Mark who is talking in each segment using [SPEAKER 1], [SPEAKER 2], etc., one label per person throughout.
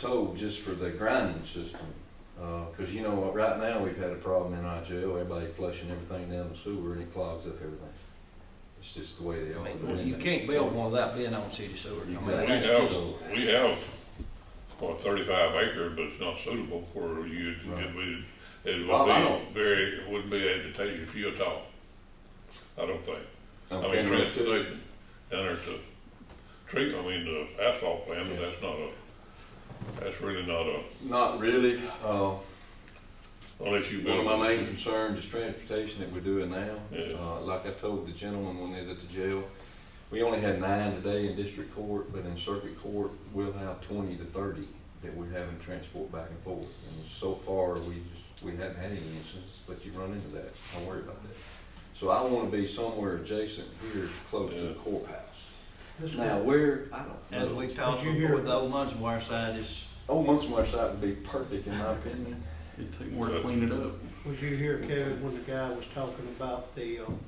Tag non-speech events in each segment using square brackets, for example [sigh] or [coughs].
[SPEAKER 1] told just for the grinding system, Uh 'cause cause you know what, right now, we've had a problem in our jail, everybody flushing everything down the sewer and it clogs up everything. It's just the way they
[SPEAKER 2] I
[SPEAKER 1] are.
[SPEAKER 2] mean, You can't build one without being on city sewer. I mean,
[SPEAKER 1] Exactly.
[SPEAKER 3] We
[SPEAKER 2] that's
[SPEAKER 3] have,
[SPEAKER 2] just-
[SPEAKER 3] we have, what, thirty-five acres, but it's not suitable for you,
[SPEAKER 1] Right.
[SPEAKER 3] it would, it
[SPEAKER 1] Well, I
[SPEAKER 3] would
[SPEAKER 1] don't-
[SPEAKER 3] be very, it wouldn't be advantageous for you at all. I don't think. I
[SPEAKER 1] Okay,
[SPEAKER 3] mean,
[SPEAKER 1] right, too.
[SPEAKER 3] transportation down there to treat, I mean, the asphalt plant, but that's not a, that's really not a,
[SPEAKER 1] Not really, uh,
[SPEAKER 3] unless you
[SPEAKER 1] One
[SPEAKER 3] build.
[SPEAKER 1] of my main concerns is transportation that we're doing now.
[SPEAKER 3] Yeah.
[SPEAKER 1] Uh, like I told the gentleman when they was at the jail, we only had nine today in district court, but in circuit court, we'll have twenty to thirty that we're having to transport back and forth. And so far, we just, we haven't had any instances, but you run into that, I worry about that. So I wanna be somewhere adjacent here, close to the
[SPEAKER 3] Yeah.
[SPEAKER 1] courthouse.
[SPEAKER 4] This
[SPEAKER 1] Now, where, I
[SPEAKER 2] As
[SPEAKER 1] don't know.
[SPEAKER 2] we talked
[SPEAKER 4] Did you hear-
[SPEAKER 2] before, the old Munson wire side is,
[SPEAKER 1] Old Munsmore site would be perfect in my opinion.
[SPEAKER 5] It'd take more to clean it up.
[SPEAKER 4] Was you here, Kevin, when the guy was talking about the, um,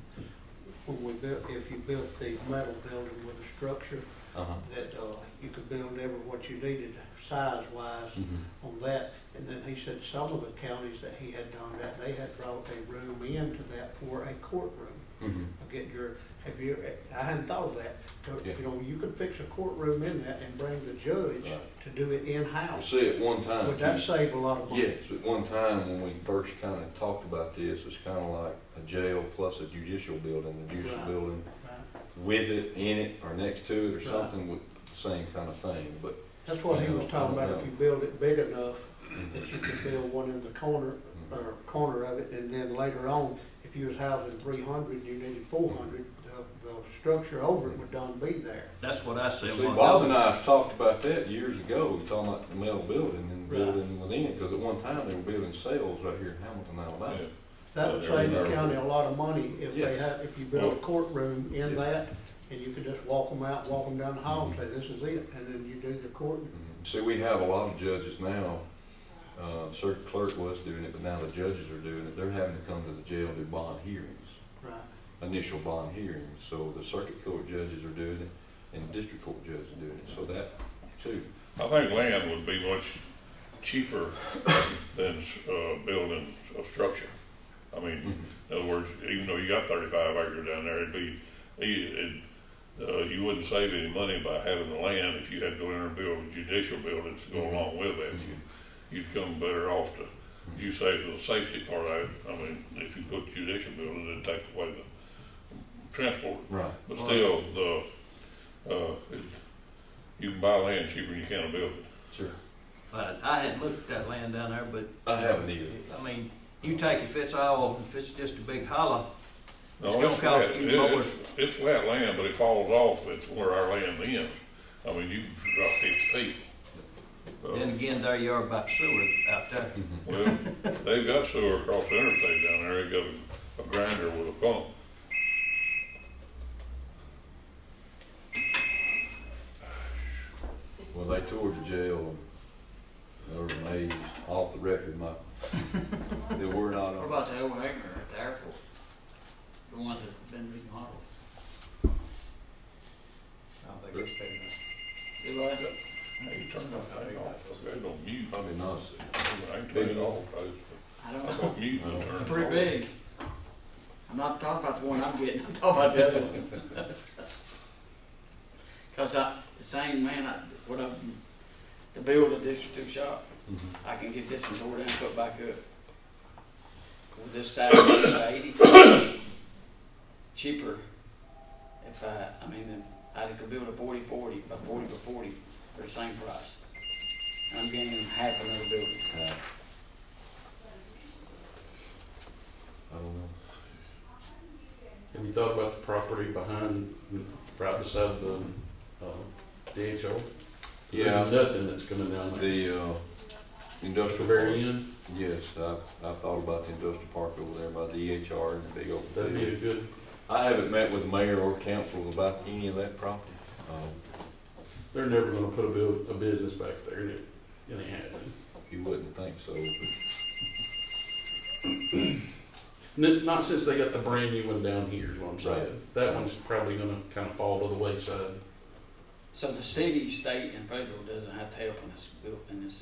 [SPEAKER 4] when we built, if you built the metal building with a structure,
[SPEAKER 1] Uh-huh.
[SPEAKER 4] that, uh, you could build ever what you needed size-wise
[SPEAKER 1] Mhm.
[SPEAKER 4] on that. And then he said some of the counties that he had done that, they had brought a room into that for a courtroom.
[SPEAKER 1] Mhm.
[SPEAKER 4] Of Get your, have you, I hadn't thought of that, but,
[SPEAKER 1] Yeah.
[SPEAKER 4] you know, you could fix a courtroom in that and bring the judge
[SPEAKER 1] Right.
[SPEAKER 4] to do it
[SPEAKER 1] I
[SPEAKER 4] in-house.
[SPEAKER 1] see at one time.
[SPEAKER 4] Would that
[SPEAKER 1] too.
[SPEAKER 4] save a lot of money?
[SPEAKER 1] Yes, at one time when we first kind of talked about this, it's kind of like a jail plus a judicial building, the judicial
[SPEAKER 4] Right.
[SPEAKER 1] building
[SPEAKER 4] Right?
[SPEAKER 1] with it, in it, or next to it, or
[SPEAKER 4] Right.
[SPEAKER 1] something with the same kind of thing, but,
[SPEAKER 4] That's what he was talking about, if you build it big enough, that you could build one in the corner,
[SPEAKER 1] hmm.
[SPEAKER 4] or corner of it, and then later on, if you was housing three hundred, you needed four hundred, the, the structure over it would done be there.
[SPEAKER 2] that's what I said.
[SPEAKER 1] see,
[SPEAKER 2] one
[SPEAKER 1] Bob and
[SPEAKER 2] day.
[SPEAKER 1] I have talked about that years ago, we talking about the metal building and the
[SPEAKER 4] Right.
[SPEAKER 1] building within it, because at one time they were building cells right here in Hamilton, Alabama.
[SPEAKER 3] Yeah.
[SPEAKER 4] That would save the county a lot of money if they
[SPEAKER 1] Yes.
[SPEAKER 4] had, if you built a courtroom in that, and you could just walk them out, walk them down the hall and say, this is it, and then you do the court.
[SPEAKER 1] Mhm. See, we have a lot of judges now, uh, circuit clerk was doing it, but now the judges are doing it, they're having to come to the jail to do bond hearings.
[SPEAKER 4] Right,
[SPEAKER 1] initial bond hearing, so the circuit court judges are doing it, and the district court judges are doing it, so that too.
[SPEAKER 3] I think land would be much cheaper than, uh, building a structure. I mean, In other words, even though you got thirty-five acres down there, it'd be, it, uh, you wouldn't save any money by having the land if you had to go in there and build judicial buildings to go along with that.
[SPEAKER 1] Mm-hmm.
[SPEAKER 3] You- You'd come better off to, you save the safety part of it, I mean, if you put judicial buildings, it'd take away the transport.
[SPEAKER 1] Right.
[SPEAKER 3] But still, the, uh, it- you can buy land cheaper than you can a building.
[SPEAKER 1] Sure.
[SPEAKER 2] But I hadn't looked at that land down there, but,
[SPEAKER 1] I haven't either.
[SPEAKER 2] I mean, you take, if it's all, if it's just a big hollow,
[SPEAKER 3] No,
[SPEAKER 2] It's gonna cost
[SPEAKER 3] flat.
[SPEAKER 2] you
[SPEAKER 3] It-
[SPEAKER 2] more.
[SPEAKER 3] It's, it's flat land, but it falls off at where our land ends. I mean, you can drop fifty feet. Uh,
[SPEAKER 1] Oh.
[SPEAKER 2] then again, there you are by the sewer out there.
[SPEAKER 3] Well, they've got sewer across the interstate down there, they got a- a grinder with a pump.
[SPEAKER 1] Well, they toured the jail, and they were amazed, off the record, my, they were not
[SPEAKER 6] What
[SPEAKER 1] on.
[SPEAKER 6] about the overhanger at the airport? The ones that been remodeled?
[SPEAKER 7] I don't think it's big enough.
[SPEAKER 6] Do I?
[SPEAKER 3] Hey, you turn that thing off, okay, don't mute. I
[SPEAKER 1] Probably not.
[SPEAKER 3] can turn it off, I
[SPEAKER 6] I don't
[SPEAKER 3] I
[SPEAKER 6] know.
[SPEAKER 3] got mute and turn it
[SPEAKER 6] It's
[SPEAKER 3] off.
[SPEAKER 6] pretty big. I'm not talking about the one I'm getting, I'm talking about the other one. [laughs] Cause I, the same man, I, what I, to build a district two shop,
[SPEAKER 1] Mhm.
[SPEAKER 6] I can get this and tore down, and put back up. With this side [coughs] it's eighty, cheaper. If I, I mean, I could build a forty forty, by forty by forty, for the same price. And I'm getting half another building.
[SPEAKER 1] Uh, I don't know.
[SPEAKER 5] Have you thought about the property behind, right beside the, uh, DHO? There's nothing that's coming down there.
[SPEAKER 1] The, uh,
[SPEAKER 5] The
[SPEAKER 1] industrial
[SPEAKER 5] very
[SPEAKER 1] park,
[SPEAKER 5] end,
[SPEAKER 1] yes, I, I thought about the industrial park over there by the EHR and the big old.
[SPEAKER 5] that'd be a good,
[SPEAKER 1] I haven't met with the mayor or council about any of that property. Um,
[SPEAKER 5] they're never gonna put a build, a business back there, and it, and it happened.
[SPEAKER 1] You wouldn't think so, but
[SPEAKER 5] N- Not since they got the brand new one down here, is what I'm
[SPEAKER 1] Right.
[SPEAKER 5] saying. That one's probably gonna kinda fall to the wayside.
[SPEAKER 6] So the city, state, and federal doesn't have to help in this, buil- in this